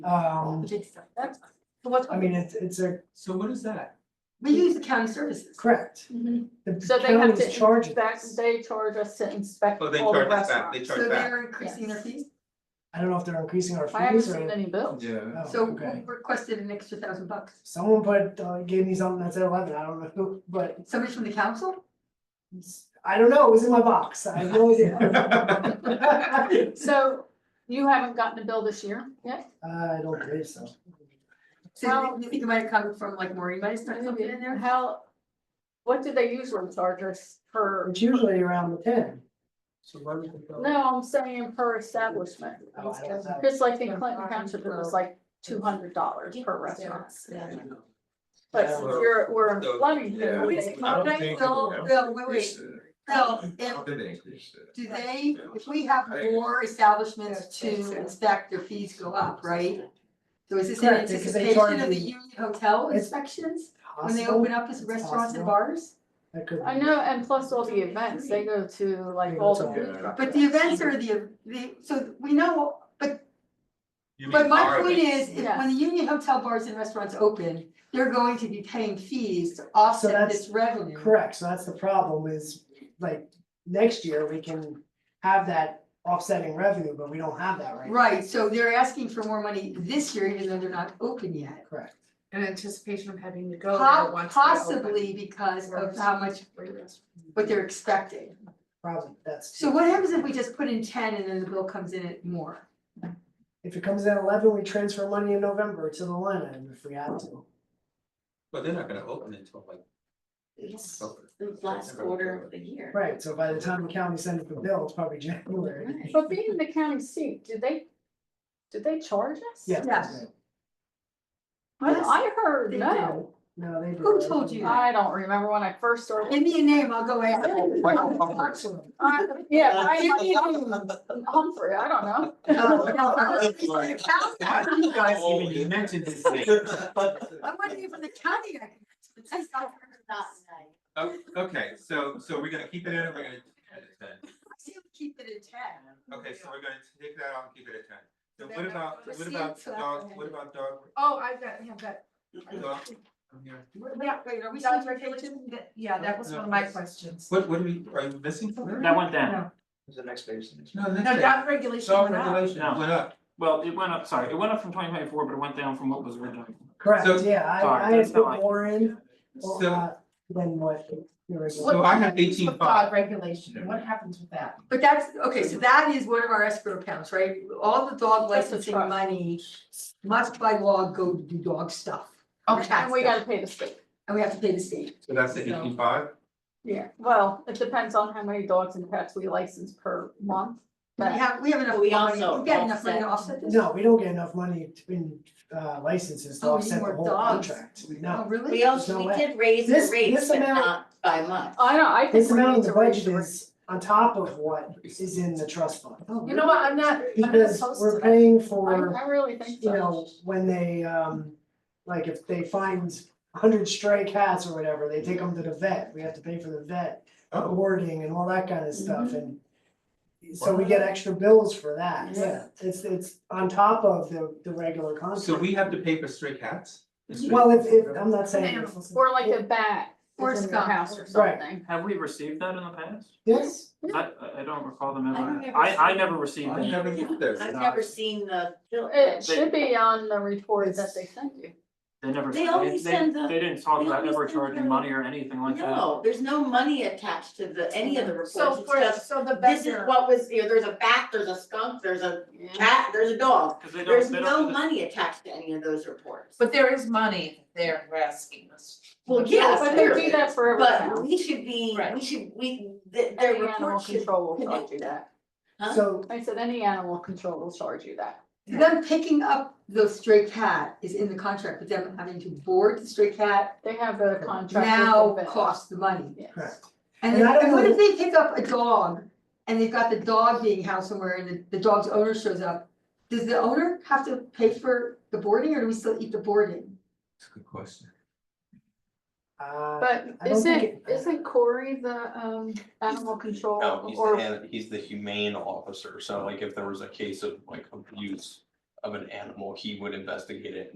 Um, That's fine. So what's, I mean, it's, it's a, So what is that? we use the county services. correct. The So they have county's to charging. inspect, they charge us to inspect Oh, they all the charge us back, they restaurants. charge So back. they're increasing their fees. I don't know if they're increasing our I haven't fees seen or. any bills. Yeah. Oh, So okay. who requested an extra thousand bucks? Someone put, uh, gave me something that said eleven, I don't know, who, but Somebody from the council? I don't know, it was in my box, I have no idea. So you haven't gotten a bill this year yet? I don't believe so. So you think it might have come from like Maureen might have stuck something in there? How, what do they usually charge us per, It's usually around the ten. So why would they go? no, I'm saying per establishment. Oh, I don't know. Just like in Clinton Township, it was like two hundred dollars per restaurant. But since Yeah. you're, we're in So, flooding. yeah. I don't think it Bill, will. Bill, wait, wait. uh, Bill, if How did they increase it? Do they, if we have more establishments to inspect, their fees go up, right? So is this in Correct, because they anticipation of the charge you- union hotel It's inspections? When they Possible, open up as It's restaurants possible. and bars? that could. I know, and plus all the events, they go to like all the food trucks. But the events are the, the, so we know, but, You mean but my our point event. is, if when the union hotel bars and restaurants open, they're going to be paying fees to offset that's this revenue. Correct, so that's the problem is, like, next year we can have that offsetting revenue, but we don't have that right now. Right, so they're asking for more money this year, even though they're not open yet. Correct. In anticipation of having to go Po- there once. they're open. Possibly because of Right. how much, what they're expecting. Probably, that's. So what happens if we just put in ten and then the bill comes in at more? If it comes in at eleven, we transfer money in November to the line item if we have to. But they're not gonna open until like oh. It's October. the last quarter of the year. Right, so by the time the county sends the bill, it's probably January. Right. But being the county seat, do they, do they charge us? Yeah. Yes. I, Yes, I heard they no. No, they. do. Who told you that? I don't remember when I first started. Give me a name, I'll go after. it. I- Yeah, I, Humphrey, I don't know. Oh, no, I- you guys even mentioned this thing? I'm waiting for the county. I can- it's not- Oh, okay, so, so we're gonna keep it in, or we're gonna edit it then? I say we Keep it at ten. Okay, so we're gonna take that out and keep it at ten. So Then what I- about, what Proceed about to that dog, one. what about dog, Oh, I've got, yeah, that. dog? I'm here. Wait, wait, are we That still was regulated? regulation? That- Yeah, that was one of my questions. What, what are we, are you missing something? That went down. No, Is the next page. the next No, no, that's that regulation Dog went up. regulation No. went up. Well, it went up, sorry, it went up from twenty twenty four, but it went down from what was originally. So- Correct, yeah, I, I Sorry, had that's not put like- more in, or, So, uh, than what. the original- So I have What happens with 18.5. Dog regulation, what happens with that? But that's, okay, so that is one of our escrow accounts, right? All the dog That's a licensing trust. money must by law go to do dog stuff. Okay, And we gotta pay the state. And we have to pay the state. so that's the So- eighteen five? Yeah, well, it depends on how many dogs and pets we license per month. We But have, we have enough We money, also we've got enough money to offset this? No, we don't get enough money to- in, uh, licenses to Oh, we need offset the more whole dogs. contract, Oh, no. really? We also, we did raise the This- this rates, but amount- not by much. I don't, Oh, I think This we amount need of to the raise budget the is on top of what is in the trust fund. Oh, You know what, I'm not, I'm not Because opposed to we're that. paying I, for, I really think you know, so. when they, um, like if they find hundred stray cats or whatever, they take them to the vet, we have to pay for the vet. Oh. Boarding and all that kind of stuff and so we get extra bills for that, yeah, it's, it's on top of the, the regular contract. So we have to pay for stray cats? The stray- Well, if, if, I'm not saying. Animals. Or like a bat Or is in your skunk. house or Right. something. Have we received that in the past? Yes, I, I- I don't recall them I don't ever, ever I, I see- never received I them. never knew this. I've never seen the. It should be on the report that they sent you. They never, They they, always they, send the- they didn't talk they about always ever send charging the- money or anything like that. No, there's no money attached to the, any of the reports, So it's for, just, so the this is vendor, what was, you know, there's a bat, there's a skunk, there's a cat, there's a dog. Cause they There's don't, they no don't, do the- money attached to any of those reports. but there is money there, we're asking us. Well, yes, But they do clearly, that for every But town. we should be, we Right. should, we, the, Any their animal report should, control will charge connect you that. Huh? so I said any animal control will charge you that. Them picking up the stray cat is in the contract, but them having to board the stray cat They have a contract. with now the vet. costs the money. Yes. Correct. And And then- I don't and what know- if they pick up a dog and they've got the dog being housed somewhere and the, the dog's owner shows up? Does the owner have to pay for the boarding or do we still eat the boarding? That's a good question. Uh, But I don't think isn't, it- isn't Corey the um animal control No, he's or? the, he's the humane officer, so like if there was a case of like abuse of an animal, he would investigate it